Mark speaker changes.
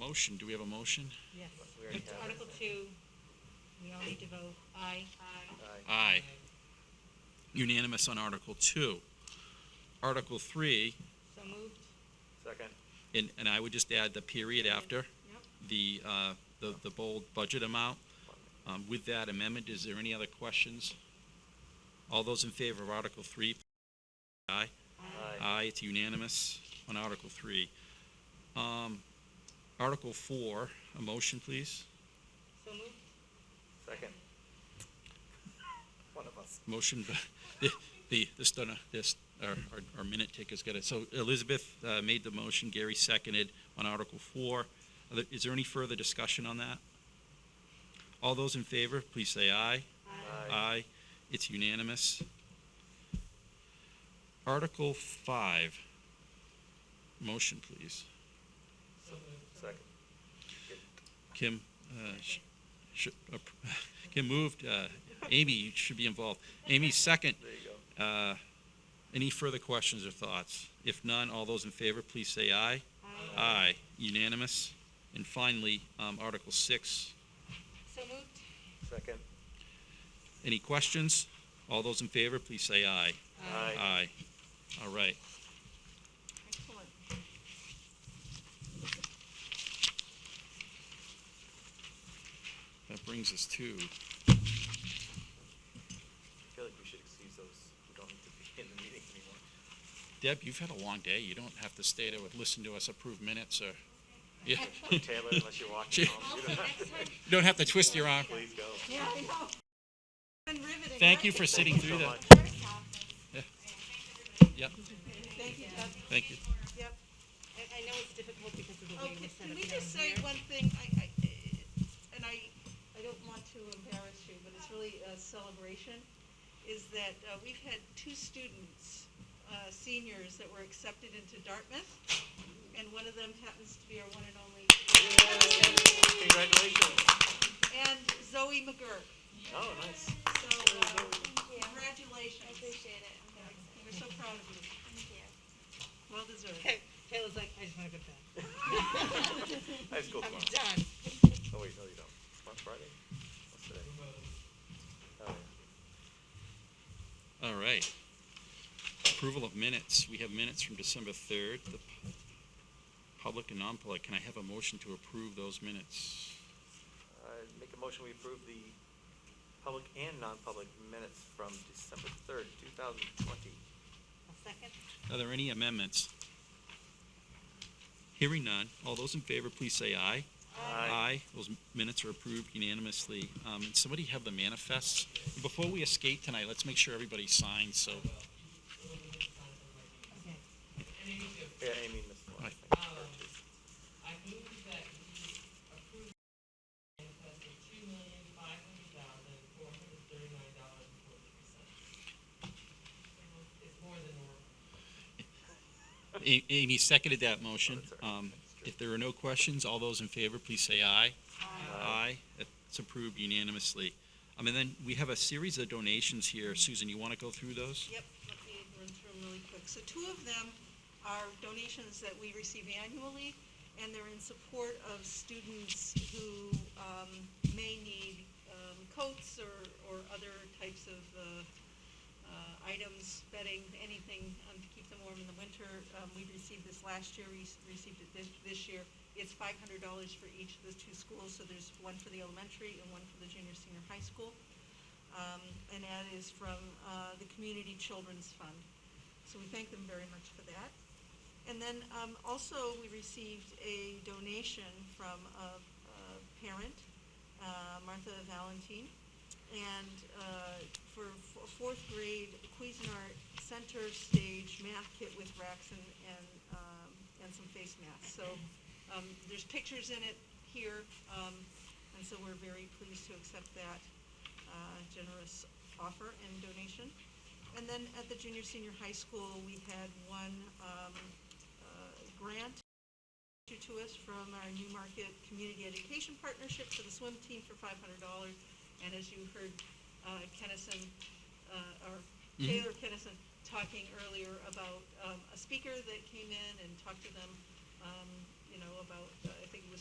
Speaker 1: motion, do we have a motion?
Speaker 2: Yes.
Speaker 3: We already have it.
Speaker 2: Article two, we all need to vote aye. Aye.
Speaker 3: Aye.
Speaker 1: Aye. Unanimous on Article Two. Article Three,
Speaker 2: So moved.
Speaker 3: Second.
Speaker 1: and, and I would just add the period after
Speaker 2: Yep.
Speaker 1: the, uh, the, the bold budget amount. Um, with that amendment, is there any other questions? All those in favor of Article Three, aye?
Speaker 3: Aye.
Speaker 1: Aye, it's unanimous on Article Three. Um, Article Four, a motion, please?
Speaker 2: So moved.
Speaker 3: Second. One of us.
Speaker 1: Motion, by- the, the, this, done, uh, this, our, our- our minute taker's got it. So Elizabeth uh, made the motion, Gary seconded on Article Four. Are there- Is there any further discussion on that? All those in favor, please say aye.
Speaker 3: Aye.
Speaker 1: Aye, it's unanimous. Article Five, motion, please.
Speaker 3: Second.
Speaker 1: Kim, uh, sh- sh- uh, Kim moved, uh, Amy, you should be involved. Amy, second.
Speaker 3: There you go.
Speaker 1: Uh, Any further questions or thoughts? If none, all those in favor, please say aye.
Speaker 2: Aye.
Speaker 1: Aye, unanimous. And finally, um, Article 6,
Speaker 2: So moved.
Speaker 3: Second.
Speaker 1: any questions? All those in favor, please say aye.
Speaker 3: Aye.
Speaker 1: Aye. All right.
Speaker 2: Excellent.
Speaker 1: That brings us to,
Speaker 3: I feel like we should excuse those who don't need to be in the meeting anymore.
Speaker 1: Deb, you've had a long day. You don't have to stay to listen to us approve minutes or, yeah,
Speaker 3: Taylor, unless you're walking
Speaker 1: Gee.
Speaker 3: home, you
Speaker 2: Also,
Speaker 3: don't have,
Speaker 2: next time,
Speaker 1: you don't have to twist your arm.
Speaker 3: please go.
Speaker 2: yeah, I know. Been riveting.
Speaker 1: Thank you
Speaker 2: right?
Speaker 1: for sitting through
Speaker 3: so
Speaker 1: that. Yep,
Speaker 2: Thank you, Doug.
Speaker 1: thank you.
Speaker 2: Yep.
Speaker 4: I, I know it's difficult because of the way we
Speaker 2: Okay,
Speaker 4: set
Speaker 2: can
Speaker 4: up
Speaker 2: we
Speaker 4: down
Speaker 2: just say
Speaker 4: here.
Speaker 2: one thing? I, I, and I, I don't want to embarrass you, but it's really a celebration, is that uh, we've had two students, uh, seniors, that were accepted into Dartmouth, and one of them happens to be our one and only,
Speaker 3: Congratulations.
Speaker 2: and Zoe McGurk.
Speaker 3: Oh, nice.
Speaker 2: So, uh, congratulations.
Speaker 5: Appreciate it.
Speaker 2: We're so proud of you.
Speaker 5: Thank you.
Speaker 2: Well deserved.
Speaker 4: Ta- Taylor's like, I just wanna go to bed.
Speaker 3: High school
Speaker 4: I'm
Speaker 3: tomorrow.
Speaker 4: done.
Speaker 3: Oh, wait, no, you don't. Tomorrow's Friday. What's today? Oh, yeah.
Speaker 1: All right. Approval of minutes. We have minutes from December 3rd, the pu- public and non-public. Can I have a motion to approve those minutes?
Speaker 3: I Uh, make a motion, we approve the public and non-public minutes from December third, two thousand twenty.
Speaker 2: A second?
Speaker 1: Are there any amendments? Hearing none. All those in favor, please say aye. Those minutes are approved unanimously. Um, And somebody have the manifests. Before we escape tonight, let's make sure everybody signs, so.
Speaker 4: Okay.
Speaker 3: Yeah, Amy missed one.
Speaker 1: Aye.
Speaker 6: I move that we approve the manifest of two million, five hundred thousand, four hundred thirty-nine dollars and forty-three cents. It's more than normal.
Speaker 1: A- Amy seconded that motion.
Speaker 3: That's all right.
Speaker 1: Um, If there are no questions, all those in favor, please say aye. Aye. It's approved unanimously. Um, And then we have a series of donations here. Susan, you want to go through those?
Speaker 2: Yep, let me run through them really quick. So two of them are donations that we receive annually, and they're in support of students who um, may need um, coats or, or other types of uh, uh, items, bedding, anything um, to keep them warm in the winter. Um, We received this last year, we s- received it this, this year. It's five hundred dollars for each of the two schools, so there's one for the elementary and one for the junior, senior high school um, and that is from uh, the Community Children's Fund. So we thank them very much for that. And then um, also, we received a donation from a a parent, uh, Martha Valentine, and uh, for f- a fourth grade Cuisinart Center Stage Math Kit with racks and, and, um, and some face masks. So um, there's pictures in it here, um, and so we're very pleased to accept that uh, generous offer and donation. And then at the junior, senior high school, we had one um, uh, grant issued to us from our Newmarket Community Education Partnership for the swim team for five hundred dollars. And as you heard uh, Kennison, uh, or Taylor Kennison talking earlier about um, a speaker that came in and talked to them, um, you know, about, uh, I think it was